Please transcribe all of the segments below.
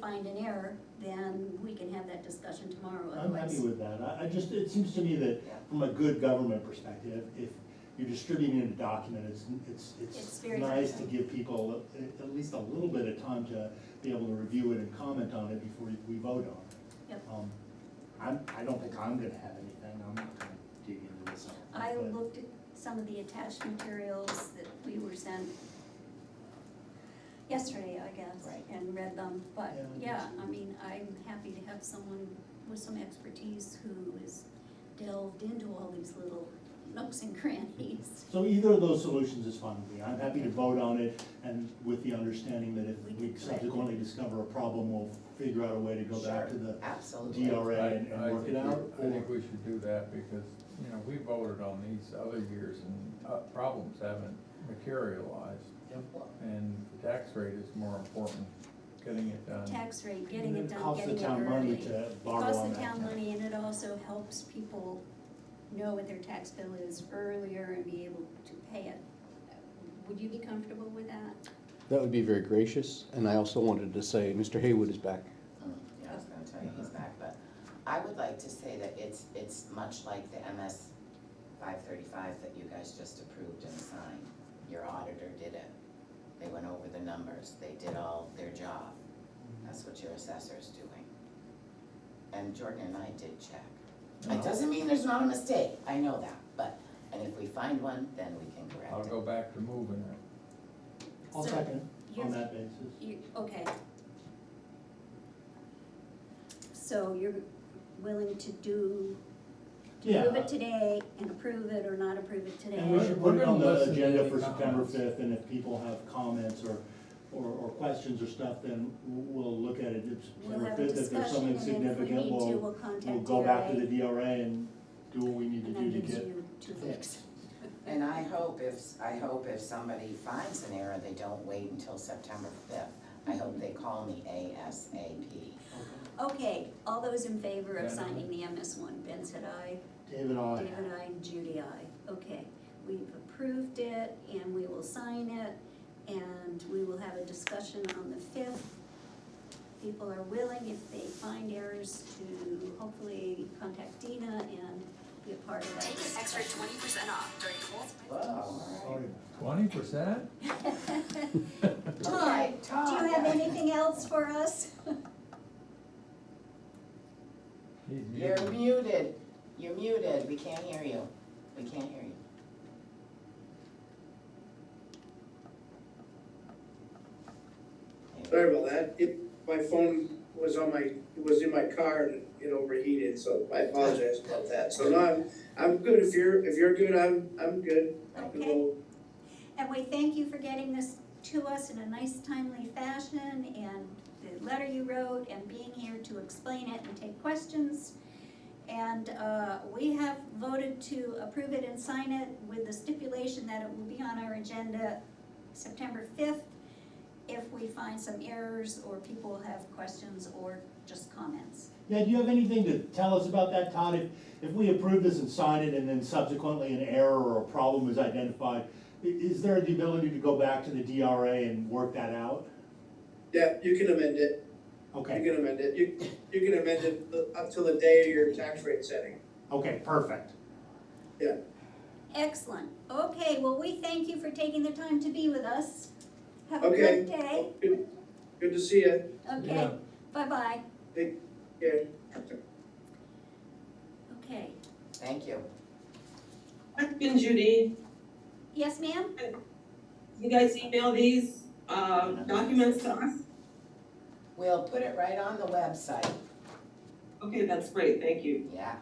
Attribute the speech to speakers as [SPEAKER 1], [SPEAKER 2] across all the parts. [SPEAKER 1] find an error, then we can have that discussion tomorrow
[SPEAKER 2] I'm happy
[SPEAKER 1] otherwise.
[SPEAKER 2] with that. I, I just, it seems to me that
[SPEAKER 3] Yeah.
[SPEAKER 2] from a good government perspective, if you're distributing a document, it's, it's,
[SPEAKER 1] It's
[SPEAKER 2] it's
[SPEAKER 1] very
[SPEAKER 2] nice to
[SPEAKER 1] transparent.
[SPEAKER 2] give people at, at least a little bit of time to be able to review it and comment on it before we vote on it.
[SPEAKER 1] Yep.
[SPEAKER 2] Um, I'm, I don't think I'm gonna have anything. I'm not gonna dig into this. I
[SPEAKER 1] I
[SPEAKER 2] don't think, but-
[SPEAKER 1] looked at some of the attached materials that we were sent yesterday, I guess,
[SPEAKER 3] Right.
[SPEAKER 1] and read them, but, yeah,
[SPEAKER 2] Yeah.
[SPEAKER 1] I mean, I'm happy to have someone with some expertise who has delved into all these little nooks and crannies.
[SPEAKER 2] So either of those solutions is fine with me. I'm happy to vote on it and with the understanding that
[SPEAKER 1] We can
[SPEAKER 2] if we
[SPEAKER 1] correct it.
[SPEAKER 2] subsequently discover a problem, we'll figure out a way to go back to
[SPEAKER 3] Sure,
[SPEAKER 2] the
[SPEAKER 3] Absolutely.
[SPEAKER 2] DRA
[SPEAKER 4] I-
[SPEAKER 2] and and
[SPEAKER 4] I
[SPEAKER 2] work it
[SPEAKER 4] think we-
[SPEAKER 2] out?
[SPEAKER 4] I think
[SPEAKER 2] or-
[SPEAKER 4] we should do that because, you know, we voted on these other years and uh, problems haven't materialized.
[SPEAKER 2] Yep.
[SPEAKER 3] Well,
[SPEAKER 4] And the tax rate is more important, getting it
[SPEAKER 2] Um,
[SPEAKER 4] done.
[SPEAKER 1] Tax rate, getting it done,
[SPEAKER 2] Costs
[SPEAKER 1] getting
[SPEAKER 2] the
[SPEAKER 1] it
[SPEAKER 2] town money
[SPEAKER 1] early.
[SPEAKER 2] to borrow
[SPEAKER 1] Costs
[SPEAKER 2] on
[SPEAKER 1] the town
[SPEAKER 2] that.
[SPEAKER 1] money and it also helps people know what their tax bill is earlier and be able to pay it. Would you be comfortable with that?
[SPEAKER 5] That would be very gracious, and I also wanted to say, Mr. Haywood is back.
[SPEAKER 3] Um, Yeah, I was gonna tell you he's back, but I would like to say that it's, it's much like the MS five thirty-five that you guys just approved and signed. Your auditor did it. They went over the numbers, they did all their job. That's what your assessor's doing. And Jordan and I did check. It doesn't mean there's not a mistake, I know that, but, and if we find one, then we can
[SPEAKER 4] I'll
[SPEAKER 3] correct it.
[SPEAKER 4] go back to moving it.
[SPEAKER 2] I'll
[SPEAKER 1] So,
[SPEAKER 2] second on
[SPEAKER 1] you're-
[SPEAKER 2] that basis.
[SPEAKER 1] You, okay. So you're willing to do, to
[SPEAKER 2] Yeah.
[SPEAKER 1] move it today and approve it or not approve it today?
[SPEAKER 2] And we should
[SPEAKER 4] We're
[SPEAKER 2] put it
[SPEAKER 4] gonna
[SPEAKER 2] on the
[SPEAKER 4] listen to
[SPEAKER 2] agenda
[SPEAKER 4] any
[SPEAKER 2] for September
[SPEAKER 4] comments.
[SPEAKER 2] fifth, and if people have comments or, or, or questions or stuff, then we'll look at it. If
[SPEAKER 1] We'll
[SPEAKER 2] September
[SPEAKER 1] have a
[SPEAKER 2] fifth, if there's
[SPEAKER 1] discussion and then
[SPEAKER 2] something
[SPEAKER 1] if we
[SPEAKER 2] significant,
[SPEAKER 1] need to,
[SPEAKER 2] we'll,
[SPEAKER 1] we'll contact DRA.
[SPEAKER 2] we'll go back to the DRA and do what we need
[SPEAKER 1] And
[SPEAKER 2] to do
[SPEAKER 1] that
[SPEAKER 2] to
[SPEAKER 1] gives
[SPEAKER 2] get.
[SPEAKER 1] you two weeks.
[SPEAKER 3] And I hope if, I hope if somebody finds an error, they don't wait until September fifth. I hope they call me ASAP.
[SPEAKER 1] Okay, all those in favor of
[SPEAKER 4] Ben, aye.
[SPEAKER 1] signing the MS one, Ben said aye.
[SPEAKER 2] David, I,
[SPEAKER 1] David, I, and Judy, I. Okay, we've approved it and we will sign it and we will have a discussion on the fifth. People are willing, if they find errors, to hopefully contact Dina and be a part of that.
[SPEAKER 6] Take an extra twenty percent off during Kohl's.
[SPEAKER 3] Whoa, all
[SPEAKER 2] sorry.
[SPEAKER 4] Twenty percent?
[SPEAKER 3] right.
[SPEAKER 1] Todd,
[SPEAKER 3] Okay,
[SPEAKER 1] Do
[SPEAKER 3] Todd,
[SPEAKER 1] you have
[SPEAKER 3] yeah.
[SPEAKER 1] anything else for us?
[SPEAKER 4] He's
[SPEAKER 3] You're
[SPEAKER 4] muted.
[SPEAKER 3] muted, you're muted, we can't hear you, we can't hear you. Maybe-
[SPEAKER 7] Sorry about that. It, my phone was on my, it was in my car and it overheated, so I apologize about that. So no, I'm, I'm good. If you're, if you're good, I'm, I'm good.
[SPEAKER 1] Okay, and we thank you for getting this to us in a nice timely fashion and the letter you wrote and being here to explain it and take questions. And uh, we have voted to approve it and sign it with the stipulation that it will be on our agenda September fifth if we find some errors or people have questions or just comments.
[SPEAKER 2] Yeah, do you have anything to tell us about that, Todd? If, if we approve this and sign it, and then subsequently an error or a problem is identified, i- is there the ability to go back to the DRA and work that out?
[SPEAKER 7] Yeah, you can amend it. You
[SPEAKER 2] Okay,
[SPEAKER 7] can amend it. You, you can amend it up till the day of your tax rate setting.
[SPEAKER 2] okay, perfect.
[SPEAKER 1] Excellent. Okay, well, we thank you for taking the time to be with us. Have a
[SPEAKER 7] Okay.
[SPEAKER 1] good day.
[SPEAKER 7] Good, good to see you.
[SPEAKER 1] Okay,
[SPEAKER 4] Yeah.
[SPEAKER 1] bye-bye.
[SPEAKER 7] Yeah.
[SPEAKER 1] Okay.
[SPEAKER 3] Thank you.
[SPEAKER 8] Mark and Judy,
[SPEAKER 1] Yes, ma'am?
[SPEAKER 8] you guys email these, um, documents to us?
[SPEAKER 3] We'll put it right on the website,
[SPEAKER 8] Okay, that's great, thank you.
[SPEAKER 3] yeah.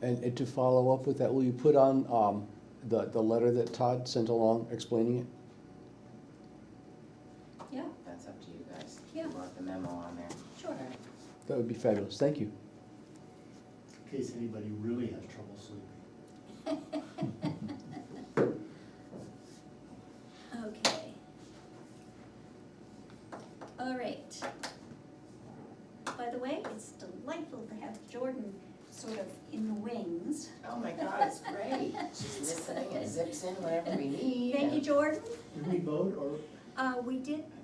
[SPEAKER 5] And and to follow up with that, will you put on um, the, the letter that Todd sent along explaining it?
[SPEAKER 3] That's up to you guys.
[SPEAKER 1] Yeah.
[SPEAKER 3] You want the memo on there.
[SPEAKER 1] Sure.
[SPEAKER 5] That would be fabulous, thank you.
[SPEAKER 2] In case anybody really has trouble sleeping.
[SPEAKER 1] Okay. All right. By the way, it's delightful to have Jordan sort of in the wings.
[SPEAKER 3] Oh my God, it's great. She's listening and zips in whenever we need.
[SPEAKER 1] Thank you, Jordan.
[SPEAKER 2] Did we vote or?
[SPEAKER 1] Uh, we did